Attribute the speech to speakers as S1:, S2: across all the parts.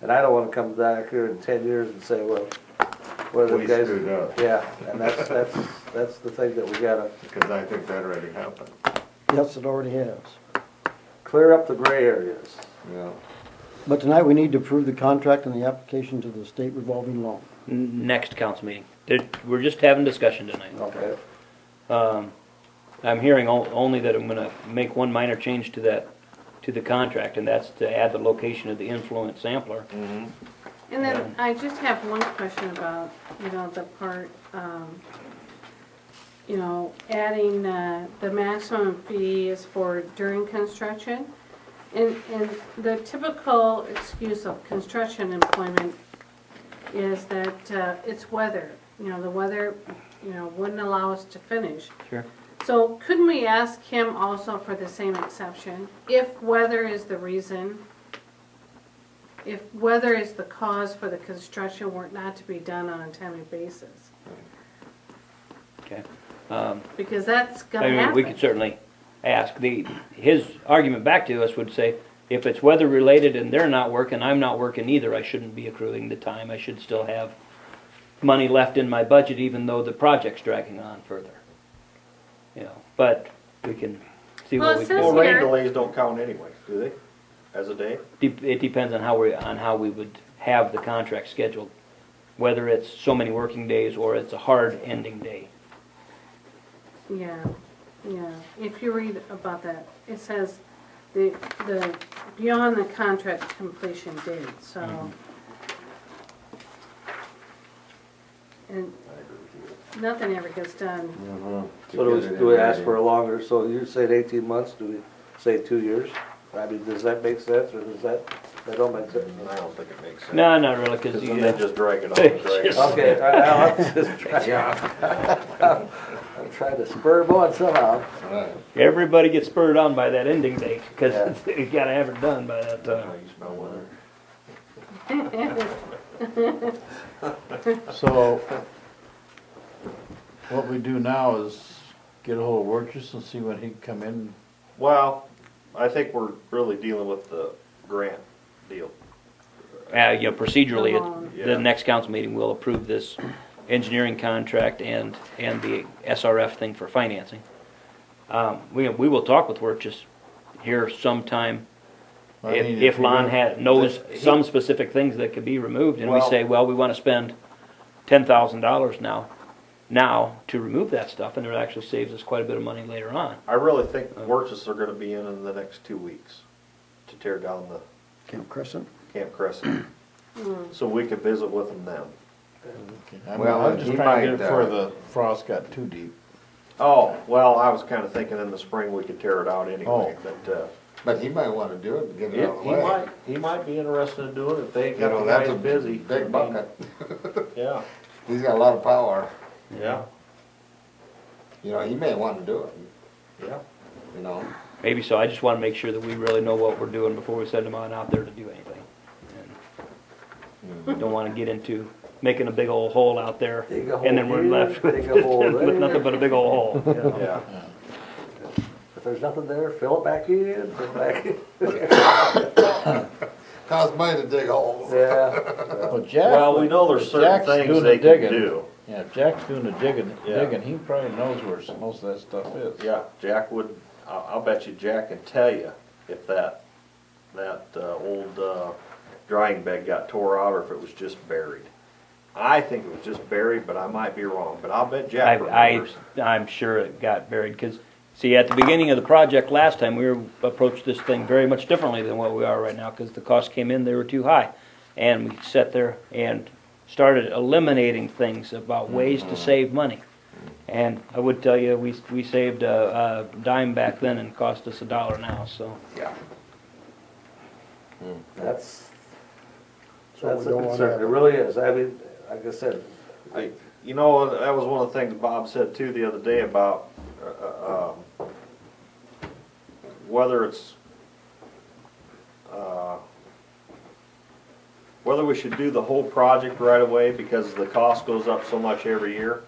S1: And I don't wanna come back here in ten years and say, well, what are
S2: We
S1: the guys?
S2: screwed up.
S1: Yeah, and that's, that's, that's the thing that we gotta
S2: because I think that already happened.
S3: Yes, it already has.
S1: clear up the gray areas.
S2: Yeah.
S3: But tonight, we need to approve the contract and the application to the state revolving loan.
S4: next council meeting. There- We're just having discussion tonight.
S1: Okay,
S4: Um, I'm hearing o- only that I'm gonna make one minor change to that, to the contract, and that's to add the location of the influent sampler.
S5: And then I just have one question about, you know, the part, um, you know, adding, uh, the maximum fee is for during construction. And, and the typical excuse of construction employment is that, uh, it's weather. You know, the weather, you know, wouldn't allow us to finish.
S4: Sure.
S5: So couldn't we ask him also for the same exception, if weather is the reason? If weather is the cause for the construction work not to be done on a timely basis?
S4: Okay. Um,
S5: Because that's
S4: I
S5: gonna
S4: mean, we could
S5: happen.
S4: certainly ask. The, his argument back to us would say, if it's weather related and they're not working, I'm not working either, I shouldn't be accruing the time. I should still have money left in my budget even though the project's dragging on further. You know, but we can see
S5: Well,
S4: what
S5: it
S4: we can.
S5: says
S4: do.
S6: Well, rain
S5: here-
S6: delays don't count anyway, do they? As a day?
S4: Dep- It depends on how we, on how we would have the contract scheduled, whether it's so many working days or it's a hard ending day.
S5: Yeah, yeah. If you read about that, it says the, the, beyond the contract completion date, so.
S4: Mm-hmm.
S5: And
S2: I agree with
S5: nothing ever gets done.
S2: you. Mhm. To
S1: so do
S2: get
S1: we,
S2: it
S1: do we
S2: in
S1: ask for a
S2: writing.
S1: longer, so you said eighteen months, do we say two years? I mean, does that make sense, or does that, that don't make sense?
S6: I don't think it makes sense.
S4: No, not really,
S6: Because
S4: because
S6: then they
S4: you,
S6: just drag it on and drag it on.
S1: Okay, I, I'll just try. I'm trying to spur them on somehow.
S2: Right.
S4: everybody gets spurred on by that ending
S1: Yeah.
S4: date, because you gotta have it done by that
S6: Now
S4: time.
S6: you smell weather.
S7: So, what we do now is get ahold of Wurgis and see when he'd come in.
S6: Well, I think we're really dealing with the grant deal.
S4: Uh, you know, procedurally, it-
S6: Yeah.
S4: the next council meeting will approve this engineering contract and, and the SRF thing for financing. Um, we, we will talk with Work just here sometime
S7: I mean,
S4: If, if
S7: you
S4: Lon
S7: don't-
S4: had, knows
S7: he-
S4: some specific things that could be removed, and we
S6: Well-
S4: say, well, we wanna spend ten thousand dollars now, now to remove that stuff, and it actually saves us quite a bit of money later on.
S6: I really think Wurchis are gonna be in in the next two weeks to tear down the
S3: Camp Crescent?
S6: Camp Crescent. So we could visit with them then.
S7: I'm-
S2: Well,
S7: I'm just
S2: he
S7: trying to get it before
S2: might, uh,
S7: the frost got too deep.
S6: Oh, well, I was kinda thinking in the spring we could tear it out
S7: Oh.
S6: anyway, but, uh,
S2: But he might wanna do it and get it
S6: Yeah,
S2: out of the
S6: he
S2: way.
S6: might, he might be interested in doing it if they
S2: You
S6: got
S2: know,
S6: the
S2: that's a
S6: guys busy. I
S2: Big
S6: mean,
S2: bucket.
S6: Yeah,
S2: He's got a lot of power.
S6: yeah,
S2: You know, he may wanna do it,
S6: yeah.
S2: you know?
S4: Maybe so, I just wanna make sure that we really know what we're doing before we send them on out there to do anything. And Don't wanna get into making a big old hole out there,
S1: Dig a
S4: and then
S1: hole
S4: we're
S1: here,
S4: left
S1: dig a hole
S4: with
S1: there.
S4: nothing but a big old hole.
S6: Yeah,
S1: If there's nothing there, fill it back in, fill it back in.
S2: Cause me to dig holes.
S1: Yeah,
S7: Well, Jack,
S6: well, we know there's certain
S7: Jack's
S6: things
S7: doing
S6: they
S7: the
S6: can
S7: digging.
S6: do.
S7: Yeah, if Jack's doing the digging,
S6: Yeah.
S7: digging, he probably knows where s- most of that stuff is.
S6: Yeah, Jack would, I, I'll bet you Jack can tell you if that, that, uh, old, uh, drying bed got tore out or if it was just buried. I think it was just buried, but I might be wrong, but I'll bet Jack
S4: I,
S6: remembers.
S4: I, I'm sure it got buried, because, see, at the beginning of the project last time, we were, approached this thing very much differently than what we are right now, because the costs came in, they were too high. And we sat there and started eliminating things about ways
S6: Mm-hmm.
S4: to save money. And I would tell you, we, we saved a a dime back then and it cost us a dollar now, so.
S2: Yeah.
S1: that's,
S3: So we
S1: that's a
S3: don't want
S1: concern, it
S3: to
S1: really is, I mean, like I said,
S6: I- You know, that was one of the things Bob said too the other day about, uh, um, whether it's, uh, whether we should do the whole project right away because the cost goes up so much every year.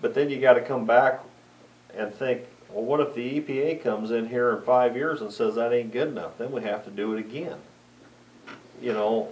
S6: But then you gotta come back and think, well, what if the EPA comes in here in five years and says that ain't good enough? Then we have to do it again. You know,